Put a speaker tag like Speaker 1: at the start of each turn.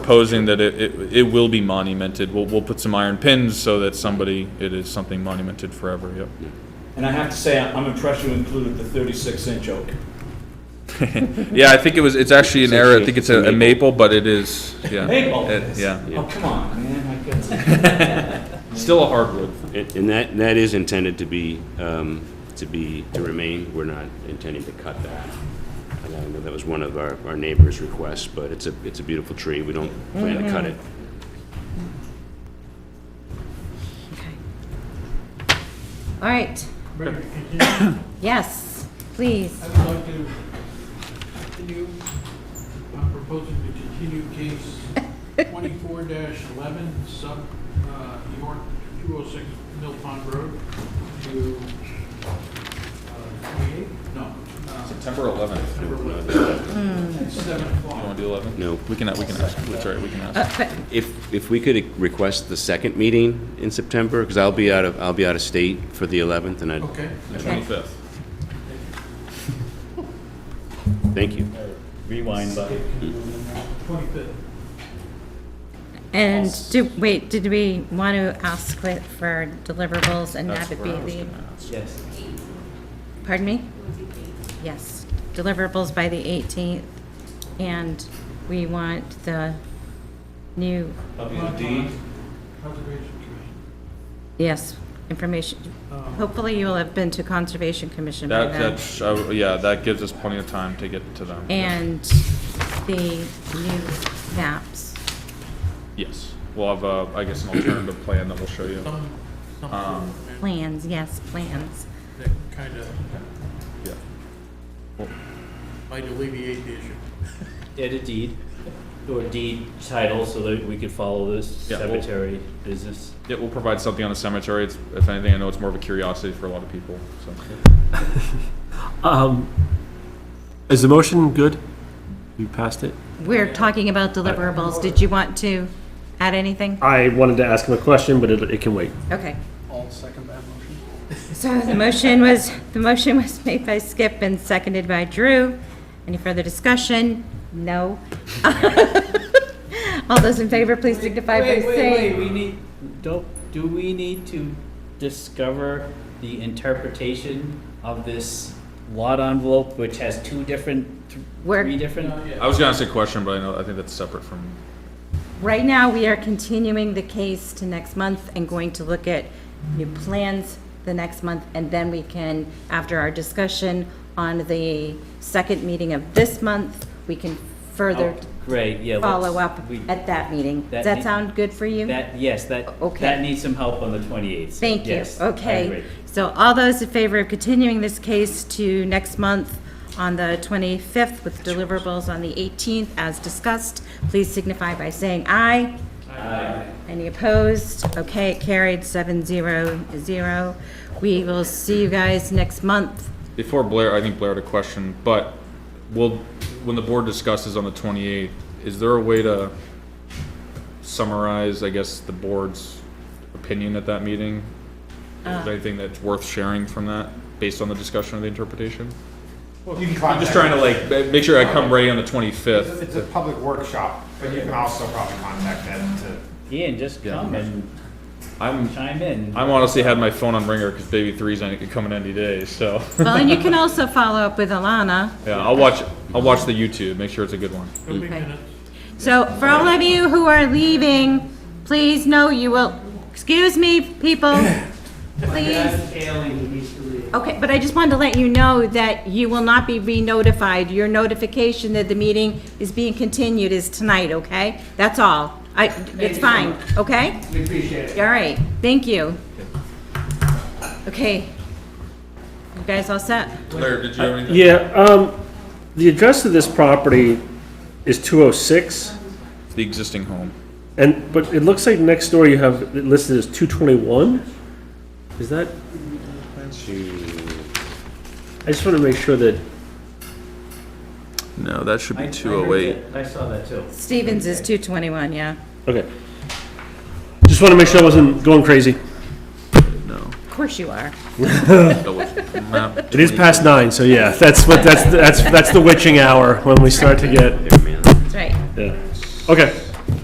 Speaker 1: proposing that it, it, it will be monumented. We'll, we'll put some iron pins so that somebody, it is something monumented forever, yep.
Speaker 2: And I have to say, I'm impressed you included the 36 inch oak.
Speaker 1: Yeah, I think it was, it's actually an
Speaker 3: It's
Speaker 1: error, I
Speaker 3: actually
Speaker 1: think it's a a maple, but it is, yeah.
Speaker 2: Maple.
Speaker 1: Uh, It- Yeah.
Speaker 2: Oh, come on, man, I guess.
Speaker 1: Still a hardwood.
Speaker 3: And and that, that is intended to be, um, to be, to remain, we're not intending to cut that. And I know that was one of our, our neighbor's requests, but it's a, it's a beautiful tree, we don't plan to cut it.
Speaker 4: Okay. All right.
Speaker 5: Mayor, again,
Speaker 4: Yes, please.
Speaker 5: I would like to continue, I'm proposing to continue case twenty-four eleven, sub, uh, York, two oh six Mill Pond Road to, uh, twenty-eight, no, uh,
Speaker 1: September eleventh.
Speaker 5: number eleven, at seven
Speaker 1: You
Speaker 5: o'clock.
Speaker 1: wanna do eleven?
Speaker 3: No.
Speaker 1: We can, we can ask, that's right, we can ask.
Speaker 4: Uh, but-
Speaker 3: If, if we could request the second meeting in September, because I'll be out of, I'll be out of state for the 11th, and I,
Speaker 5: Okay,
Speaker 1: The twenty-fifth.
Speaker 3: thank you.
Speaker 6: Rewind button.
Speaker 5: twenty-fifth.
Speaker 4: And do, wait, did we want to ask for- for deliverables and
Speaker 1: That's
Speaker 4: have it
Speaker 1: where
Speaker 4: be
Speaker 1: I was
Speaker 4: the,
Speaker 1: gonna ask.
Speaker 6: Yes.
Speaker 4: pardon me? Yes, deliverables by the 18th, and we want the new,
Speaker 5: Conservation Commission.
Speaker 4: yes, information.
Speaker 5: Um,
Speaker 4: Hopefully you will have been to Conservation Commission by
Speaker 1: That,
Speaker 4: then.
Speaker 1: that's, uh, yeah, that gives us plenty of time to get to them.
Speaker 4: And the new maps.
Speaker 1: Yes, we'll have, uh, I guess, an alternative plan that we'll show you.
Speaker 5: Some, some sort
Speaker 1: Um,
Speaker 5: of plan
Speaker 4: Plans, yes, plans.
Speaker 5: that kind of
Speaker 1: Yeah.
Speaker 5: might alleviate the issue.
Speaker 6: Add a deed, or deed title, so that we could follow this
Speaker 1: Yeah, we'll-
Speaker 6: cemetery business.
Speaker 1: Yeah, we'll provide something on the cemetery. It's, if anything, I know it's more of a curiosity for a lot of people, so.
Speaker 7: Um, Is the motion good? You passed it?
Speaker 4: We're talking about deliverables. Did you want to add anything?
Speaker 7: I wanted to ask him a question, but it, it can wait.
Speaker 4: Okay.
Speaker 5: All second that motion?
Speaker 4: So the motion was, the motion was made by Skip and seconded by Drew. Any further discussion? No. All those in favor, please signify by
Speaker 6: Wait, wait, wait,
Speaker 4: saying.
Speaker 6: we need, don't, do we need to discover the interpretation of this lot envelope, which has two different, th-
Speaker 4: We're-
Speaker 6: three different?
Speaker 1: I was gonna ask a question, but I know, I think that's separate from,
Speaker 4: Right now, we are continuing the case to next month and going to look at new plans the next month. And then we can, after our discussion on the second meeting of this month, we can further
Speaker 6: Oh, Great, yeah. let's-
Speaker 4: follow up
Speaker 6: we-
Speaker 4: at that meeting. Does
Speaker 6: That
Speaker 4: that
Speaker 6: need-
Speaker 4: sound good for you?
Speaker 6: That, yes, that,
Speaker 4: O- okay.
Speaker 6: that needs some help on the 28th. so
Speaker 4: Thank you.
Speaker 6: yes, I
Speaker 4: Okay.
Speaker 6: agree.
Speaker 4: So all those in favor of continuing this case to next month on the 25th with deliverables on the 18th as discussed, please signify by saying aye. Aye. Any opposed? Okay, it carried seven zero zero. We will see you guys next month.
Speaker 1: before Blair, I think Blair had a question, but will, when the board discusses on the twenty-eighth, is there a way to summarize, I guess, the board's opinion at that meeting? Is there anything that's worth sharing from that, based on the discussion or the interpretation?
Speaker 8: You can
Speaker 1: I'm just trying to like, ma- make sure I come ready on the twenty-fifth.
Speaker 8: It's a public workshop, but you can also probably contact them to.
Speaker 6: Ian, just come and
Speaker 1: I'm,
Speaker 6: chime in.
Speaker 1: I'm honestly had my phone on ringer because baby three's any- coming any day, so.
Speaker 4: Well, and you can also follow up with Alana.
Speaker 1: Yeah, I'll watch, I'll watch the YouTube, make sure it's a good one.
Speaker 5: It'll be
Speaker 4: Okay.
Speaker 5: minutes.
Speaker 4: So for all of you who are leaving, please know you will, excuse me, people, please. Okay, but I just wanted to let you know that you will not be re-notified. Your notification that the meeting is being continued is tonight, okay? That's all. I, it's fine, okay? We appreciate it. All right, thank you. Okay. You guys all set?
Speaker 1: Claire, did you have anything?
Speaker 7: Yeah, um, the address of this property is 206,
Speaker 1: The existing home.
Speaker 7: and, but it looks like next door you have it listed as 221? Is that, I just want to make sure that,
Speaker 1: No, that should oh
Speaker 6: I- I heard that. I saw that too.
Speaker 4: Stevens is 221, yeah.
Speaker 7: okay. Just want to make sure I wasn't going crazy.
Speaker 1: No.
Speaker 4: Of course you are.
Speaker 7: It is past nine, so yeah, that's what, that's, that's, that's the witching hour when we start to get,
Speaker 3: There, man.
Speaker 4: That's right.
Speaker 7: yeah. Okay.